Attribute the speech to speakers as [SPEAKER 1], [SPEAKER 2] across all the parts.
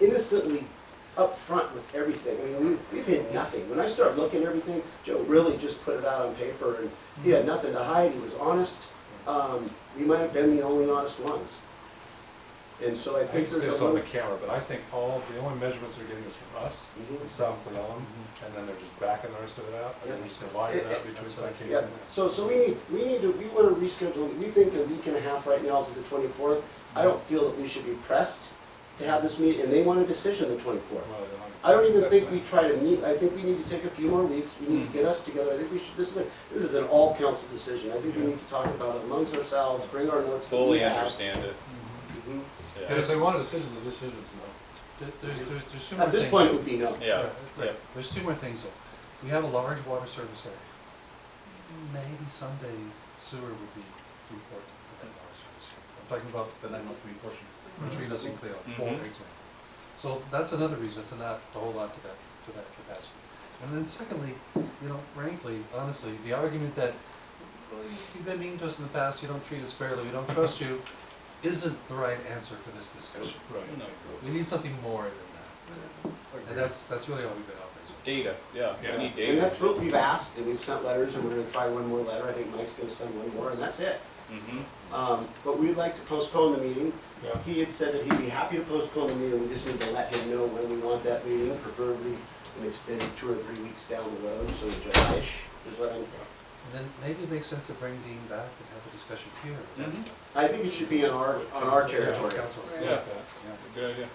[SPEAKER 1] innocently upfront with everything. I mean, we- we've hid nothing. When I start looking at everything, Joe really just put it out on paper and he
[SPEAKER 2] Mm-hmm.
[SPEAKER 1] had nothing to hide. He was honest. Um, we might have been the only honest ones. And so I
[SPEAKER 2] I hate
[SPEAKER 1] think
[SPEAKER 2] to say
[SPEAKER 1] there's
[SPEAKER 2] this
[SPEAKER 1] a
[SPEAKER 2] on the
[SPEAKER 1] little.
[SPEAKER 2] camera, but I think all, the only measurements they're getting is from us
[SPEAKER 1] Mhm.
[SPEAKER 2] and South Cleon, and then they're just backing the rest of it out, and then
[SPEAKER 1] Mm-hmm. Yeah.
[SPEAKER 2] just dividing it
[SPEAKER 1] Yeah,
[SPEAKER 2] up between
[SPEAKER 3] that's right.
[SPEAKER 2] citations.
[SPEAKER 1] Yeah, so, so we need, we need to, we wanna reschedule, we think a week and a half right now to the twenty-fourth. I don't feel that we should be pressed to have this meeting, and they want a decision the twenty-fourth.
[SPEAKER 2] Well, then
[SPEAKER 1] I don't even
[SPEAKER 2] that's
[SPEAKER 1] think
[SPEAKER 2] fine.
[SPEAKER 1] we try to meet, I think we need to take a few more weeks, we need to get us together, I think we should, this is, a- this is an all council decision. I think we
[SPEAKER 2] Yeah.
[SPEAKER 1] need to talk about it amongst ourselves, bring our notes. that we
[SPEAKER 4] fully
[SPEAKER 1] have.
[SPEAKER 4] understand it.
[SPEAKER 1] Mhm.
[SPEAKER 2] And if they
[SPEAKER 4] Yeah.
[SPEAKER 2] want a decision, the decision is no.
[SPEAKER 3] There- There's, there's, there's two more
[SPEAKER 1] At
[SPEAKER 3] things.
[SPEAKER 1] this point, it would be no.
[SPEAKER 4] Yeah,
[SPEAKER 3] Right,
[SPEAKER 4] yeah.
[SPEAKER 3] right. There's two more things though. We have a large water service area. Maybe someday sewer would be important for that water service. area. I'm talking about the nine oh three portion, between us and Cleo, for
[SPEAKER 4] Mhm.
[SPEAKER 3] example. So that's another reason to not, to hold on to that, to that capacity. And then secondly, you know, frankly, honestly, the argument that, well, you- you've been mean to us in the past, you don't treat us fairly, we don't trust you, isn't the right answer for this discussion.
[SPEAKER 2] Right.
[SPEAKER 4] No.
[SPEAKER 3] We need something more than that. And that's, that's really all we've been offering. so
[SPEAKER 4] Data, yeah,
[SPEAKER 2] Yeah.
[SPEAKER 4] we need
[SPEAKER 1] And
[SPEAKER 4] data.
[SPEAKER 1] that's what we've asked, and we've sent letters, and we're gonna try one more letter, I think Mike's gonna send one more, and that's it.
[SPEAKER 4] Mm-hmm.
[SPEAKER 1] Um, but we'd like to postpone the meeting.
[SPEAKER 2] Yeah.
[SPEAKER 1] He had said that he'd be happy to postpone the meeting, we just need to let him know when we want that meeting, preferably an extended two or three weeks down the road, so July-ish is what I'm.
[SPEAKER 3] And then maybe it makes sense to bring Dean back and have a discussion here.
[SPEAKER 4] Mhm.
[SPEAKER 1] I think it should be on our, on our territory.
[SPEAKER 3] Council.
[SPEAKER 4] Yeah.
[SPEAKER 3] Yeah.
[SPEAKER 4] Good idea.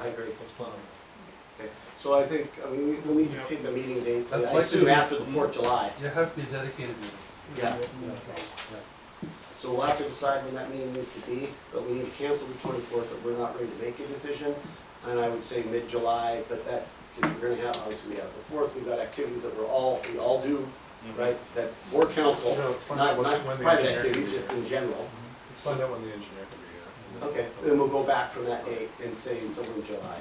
[SPEAKER 1] I agree.
[SPEAKER 2] Let's plan on
[SPEAKER 1] So I think, I mean, we- we'll need to pick the meeting date, but
[SPEAKER 3] That's
[SPEAKER 1] I
[SPEAKER 3] likely to
[SPEAKER 1] assume
[SPEAKER 3] be-
[SPEAKER 1] after the Fourth of July.
[SPEAKER 3] You have to be a dedicated meeting.
[SPEAKER 1] Yeah,
[SPEAKER 3] Yeah.
[SPEAKER 1] so we'll have to decide when that meeting needs to be, but we need to cancel the twenty-fourth, but we're not ready to make a decision. And I would say mid-July, but that, because we're gonna have, obviously, we have the fourth, we've got activities that we're all, we all do,
[SPEAKER 4] Mhm.
[SPEAKER 1] right? That board council,
[SPEAKER 2] No, it's fine.
[SPEAKER 1] not,
[SPEAKER 2] When-
[SPEAKER 1] not
[SPEAKER 2] when the
[SPEAKER 1] private
[SPEAKER 2] engineer
[SPEAKER 1] activities,
[SPEAKER 2] can be
[SPEAKER 1] just
[SPEAKER 2] here.
[SPEAKER 1] in general.
[SPEAKER 2] Let's find out when the engineer can be here. and then-
[SPEAKER 1] Okay, then we'll go back from that date and say somewhere in July.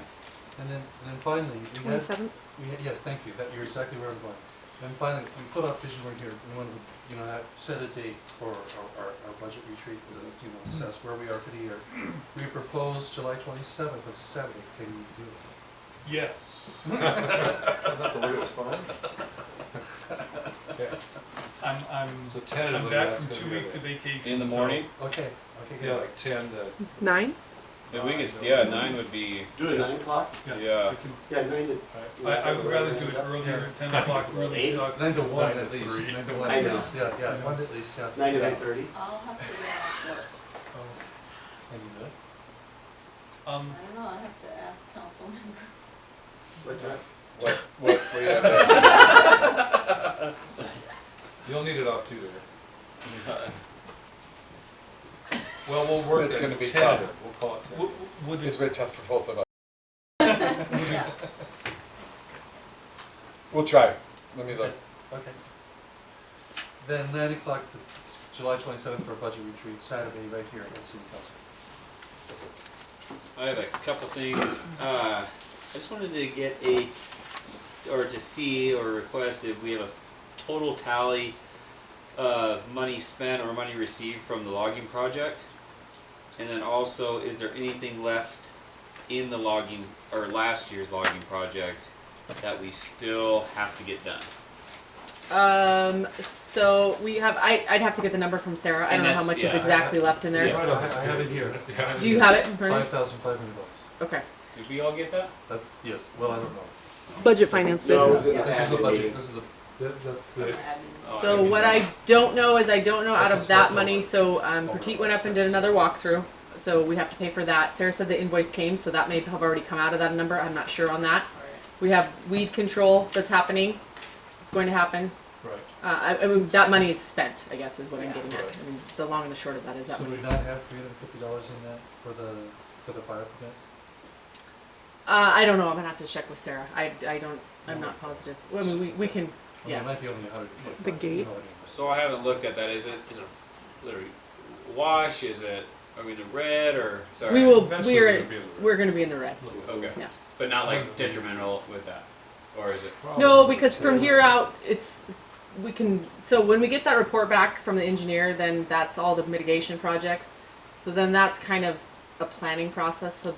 [SPEAKER 3] And then, and then finally, we had,
[SPEAKER 5] Twenty-seventh?
[SPEAKER 3] we had, yes, thank you, that, you're exactly where I'm going. And finally, we put off vision board here, we wanted, to, you know, have, set a date for our, our, our budget retreat, to, you know, assess where we are for the year. We proposed July twenty-seventh, that's a Saturday, can you do it?
[SPEAKER 6] Yes,
[SPEAKER 2] Not the weirdest fun.
[SPEAKER 6] I'm, I'm,
[SPEAKER 2] So
[SPEAKER 6] I'm
[SPEAKER 2] tentatively,
[SPEAKER 6] back
[SPEAKER 2] that's
[SPEAKER 6] from
[SPEAKER 2] gonna
[SPEAKER 6] two
[SPEAKER 2] be
[SPEAKER 6] weeks
[SPEAKER 2] the-
[SPEAKER 6] of vacation.
[SPEAKER 4] In the
[SPEAKER 6] so-
[SPEAKER 4] morning,
[SPEAKER 3] Okay, okay,
[SPEAKER 2] Yeah,
[SPEAKER 3] good.
[SPEAKER 2] like ten to.
[SPEAKER 5] Nine?
[SPEAKER 4] if we could, yeah, nine would be,
[SPEAKER 1] Do it at nine o'clock?
[SPEAKER 6] Yeah.
[SPEAKER 4] yeah.
[SPEAKER 6] we can-
[SPEAKER 1] Yeah, nine to.
[SPEAKER 6] I, I would rather do it earlier, ten o'clock really
[SPEAKER 1] Eight?
[SPEAKER 6] sucks.
[SPEAKER 3] Nine to one
[SPEAKER 6] Nine
[SPEAKER 3] at
[SPEAKER 6] to
[SPEAKER 3] least,
[SPEAKER 6] three.
[SPEAKER 3] nine to one
[SPEAKER 1] I
[SPEAKER 3] at
[SPEAKER 1] know.
[SPEAKER 3] least, yeah, yeah, one at least, yeah.
[SPEAKER 1] Nine to
[SPEAKER 3] Yeah.
[SPEAKER 1] nine thirty?
[SPEAKER 7] I'll have to go out of work.
[SPEAKER 6] Oh,
[SPEAKER 2] Can you do that?
[SPEAKER 6] Um,
[SPEAKER 7] I don't know, I have to ask council member.
[SPEAKER 1] What time?
[SPEAKER 2] What, what, what do you have next? You'll need it off too there. Well, we'll work,
[SPEAKER 8] It's
[SPEAKER 2] it's
[SPEAKER 8] gonna be
[SPEAKER 2] ten,
[SPEAKER 8] tough.
[SPEAKER 2] we'll call it ten.
[SPEAKER 6] w- would
[SPEAKER 8] It's
[SPEAKER 6] it,
[SPEAKER 8] been tough for both of us.
[SPEAKER 7] Yeah.
[SPEAKER 8] We'll try. Let me look.
[SPEAKER 3] Okay. Then nine o'clock, the- July twenty-seventh for a budget retreat, Saturday, right here at City Council.
[SPEAKER 4] I have a couple things. Uh, I just wanted to get a, or to see or request if we have a total tally of money spent or money received from the logging project. And then also, is there anything left in the logging, or last year's logging project that we still have to get done?
[SPEAKER 5] Um, so we have, I, I'd have to get the number from Sarah. I
[SPEAKER 4] And
[SPEAKER 5] don't know how
[SPEAKER 4] that's-
[SPEAKER 5] much is
[SPEAKER 4] yeah.
[SPEAKER 5] exactly left in there.
[SPEAKER 2] Yeah.
[SPEAKER 3] I have it here.
[SPEAKER 5] Do you have it in front
[SPEAKER 3] Five
[SPEAKER 5] of
[SPEAKER 3] thousand five hundred dollars.
[SPEAKER 5] you? Okay.
[SPEAKER 4] Did we all get that?
[SPEAKER 3] That's, yes, well, I don't know.
[SPEAKER 5] Budget finance.
[SPEAKER 1] No, it
[SPEAKER 5] did.
[SPEAKER 1] was in the
[SPEAKER 3] This is the
[SPEAKER 1] admin meeting.
[SPEAKER 3] budget, this is the,
[SPEAKER 2] That, that's
[SPEAKER 7] Some
[SPEAKER 2] the,
[SPEAKER 7] admin.
[SPEAKER 4] Oh,
[SPEAKER 5] So
[SPEAKER 4] didn't
[SPEAKER 5] what
[SPEAKER 4] know.
[SPEAKER 5] I don't know is I don't know out
[SPEAKER 3] That's
[SPEAKER 5] of
[SPEAKER 3] a
[SPEAKER 5] that
[SPEAKER 3] step
[SPEAKER 5] money,
[SPEAKER 3] over.
[SPEAKER 5] so, um,
[SPEAKER 3] Over
[SPEAKER 5] Petit
[SPEAKER 3] the
[SPEAKER 5] went up and did
[SPEAKER 3] taxes.
[SPEAKER 5] another walkthrough. So we have to pay for that. Sarah said the invoice came, so that may have already come out of that number. I'm not sure on that. We have weed control that's happening. It's going to happen.
[SPEAKER 2] right.
[SPEAKER 5] Uh, I, I mean, that money is spent, I guess, is what I'm
[SPEAKER 7] Yeah.
[SPEAKER 5] getting at.
[SPEAKER 2] Right.
[SPEAKER 5] I mean, the long and the short of that is that
[SPEAKER 3] so
[SPEAKER 5] money.
[SPEAKER 3] we not have three hundred and fifty dollars in that for the, for the fire permit?
[SPEAKER 5] Uh, I don't know. I'm gonna have to check with Sarah. I, I don't. I'm not positive. Well, I mean, we, we can.
[SPEAKER 3] I mean,
[SPEAKER 5] Yeah.
[SPEAKER 3] it might be only a hundred and twenty-five.
[SPEAKER 5] The gate?
[SPEAKER 4] So I haven't looked at that. Is it is it literally wash? Is it are we in the red or sorry?
[SPEAKER 5] We will.
[SPEAKER 2] Eventually
[SPEAKER 5] We're
[SPEAKER 2] gonna be in the red.
[SPEAKER 5] we're gonna be in the red.
[SPEAKER 4] Okay.
[SPEAKER 5] Yeah.
[SPEAKER 4] But not like detrimental with that, or is it?
[SPEAKER 5] No, because from here out, it's we can. So when we get that report back from the engineer, then that's all the mitigation projects. So then that's kind of a planning process. So